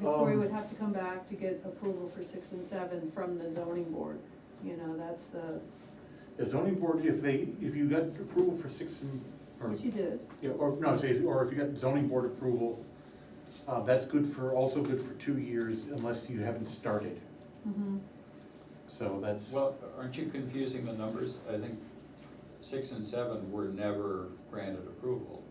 before we Um, would have to come back to get approval for six and seven from the zoning board. You know, that's the, The zoning board, if they, if you got approval for six and, or, which you did, yeah, or, no, say, or if you got zoning board approval, uh, that's good for, also good for two years unless you haven't started, mhm, so that's. Well, aren't you confusing the numbers? I think six and seven were never granted approval.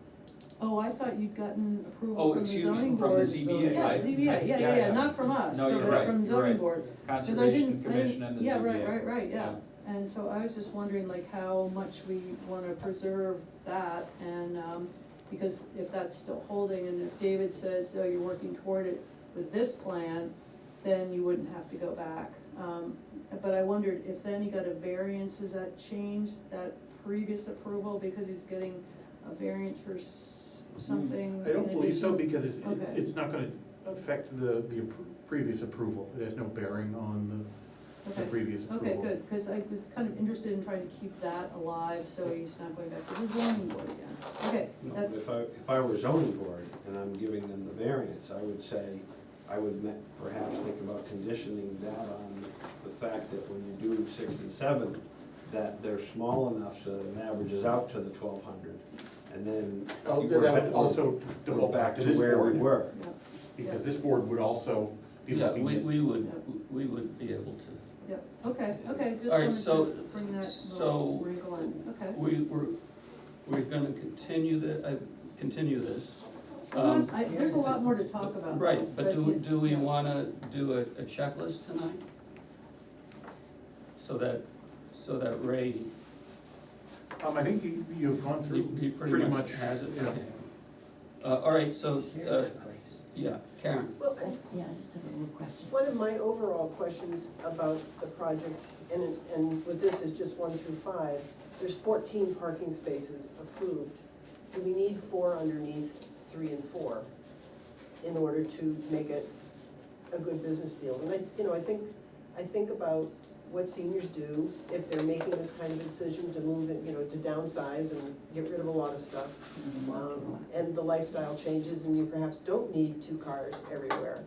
oh, I thought you'd gotten approval Oh, from the excuse me, zoning from the board. ZBA, Yeah, right? ZBA, yeah, yeah, yeah, not from us, No, from, you're right, Uh, from you're zoning right. board. 'Cause I Conservation didn't- I didn't- Commission and the ZBA. Yeah, right, right, right, yeah. And so I was just wondering like how much we wanna preserve that and, um, because if that's still holding and if David says, oh, you're working toward it with this plan, then you wouldn't have to go back. Um, but I wondered if then he got a variance, does that change that previous approval because he's getting a variance for s- something? I don't in believe so, addition? because it's, Okay. it's not gonna affect the, the appro- previous approval, it has no bearing on the, the Okay. previous approval. Okay, good, because I was kind of interested in trying to keep that alive, so he's not going back to the zoning board again. Okay, No, but that's, If I, if I were zoning board and I'm giving them the variance, I would say, I would ma- perhaps think about conditioning that on the fact that when you do six and seven, that they're small enough so that it averages out to the twelve hundred. And then. Oh, you that were- would also default back to this Where we board, were. yeah, because this board would also be Yeah, looking we, at. we would, we would be able to. yeah, okay, okay, just All right, wanted so- to bring that so- little wrinkle in, okay. We, we're, we're gonna continue the, uh, continue this. I'm Um, not- I- There's a lot more to talk about. Right, but do, yeah, do we yeah. wanna do a a checklist tonight? So that, so that Ray, Um, I think you, you've gone he, through he pretty much. has it. yeah. okay. Uh, all right, so, uh, yeah, Karen, Well, Yeah, I just have a little question. one of my overall questions about the project, and, it- and with this is just one through five, there's fourteen parking spaces approved. Do we need four underneath three and four in order to make it a good business deal? And I, you know, I think, I think about what seniors do if they're making this kind of decision to move, it, you know, to downsize and get rid of a lot of stuff. Um, And the lifestyle changes and you perhaps don't need two cars everywhere.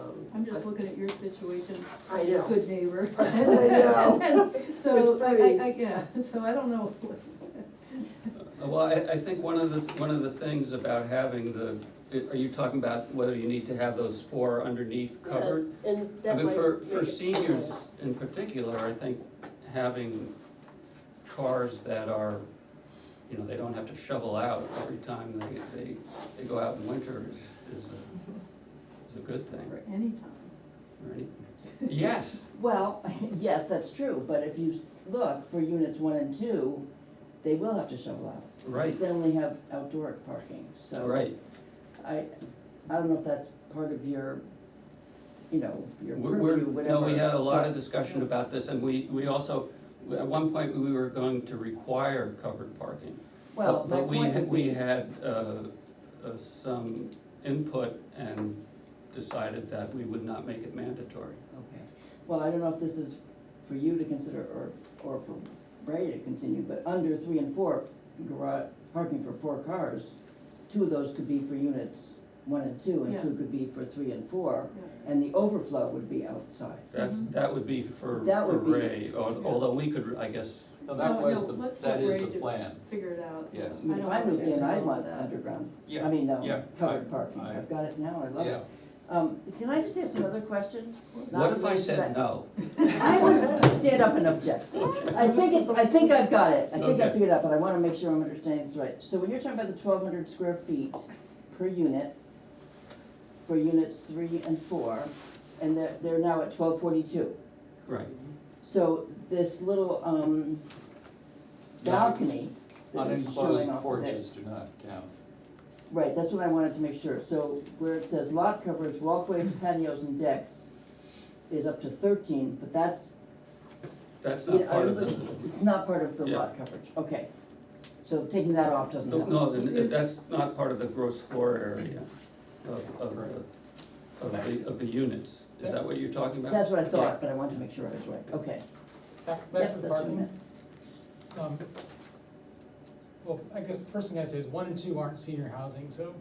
Um, I'm just looking at your situation, I know. good neighbor. I know. And So, With I, three. I, I, yeah, so I don't know. Uh, well, I, I think one of the, one of the things about having the, are you talking about whether you need to have those four underneath covered? Yeah, And I that mean, might for, make for it- seniors in particular, I think having cars that are, you know, they don't have to shovel out every time they, they, they go out in winter is, is a, is a good thing, For any time. right? Yes, Well, yes, that's true, but if you s- look for units one and two, they will have to shovel out. right, They only have outdoor parking, so. right. I, I don't know if that's part of your, you know, your We're, we're- purview, whatever. no, we had a lot of but- discussion about this and we, we also, at one point, we were going to require covered parking. Well, But- my But we, point ha- would we be, had, uh, uh, some input and decided that we would not make it mandatory. okay, well, I don't know if this is for you to consider or, or for Ray to continue, but under three and four, garage, parking for four cars, two of those could be for units one and two, and Yeah. two could be for three and four. Yeah. And the overflow would be outside. That's, Mhm. that would be for, Mm-hmm. That for would be- Ray, al- although we could, I guess, No, that No, was no, the, let's not that is worry the to- plan. Figure it out. I Yes. I mean, don't if I moved wanna in, I get want involved with underground, Yeah, I mean, yeah, no, covered I- parking, I- I've got it now, I love it. Yeah, Um, can I just ask another question? what if I said no? I would stand up and object. I think it's, I think I've got it, I think I Okay. figured it out, but I wanna make sure I'm understanding this right. So when you're talking about the twelve hundred square feet per unit, for units three and four, and they're, they're now at twelve forty-two. Right, So this little, um, balcony that is unenclosed showing off of it. porches do not count. Right, that's what I wanted to make sure, so where it says lot coverage, walkways, patios and decks is up to thirteen, but that's, that's yeah, not I part of really, the, it's not part of the Yeah. lot coverage, okay. So taking that off doesn't no, help. no, then that's not part of the gross floor area of, of the, of the, of the units. Is that what you're talking about? That's what I thought, but I wanted to make sure I was right, okay. Back, Yep, back to that's the what I parking. meant. Um, Well, I guess the first thing I'd say is one and two aren't senior housing, so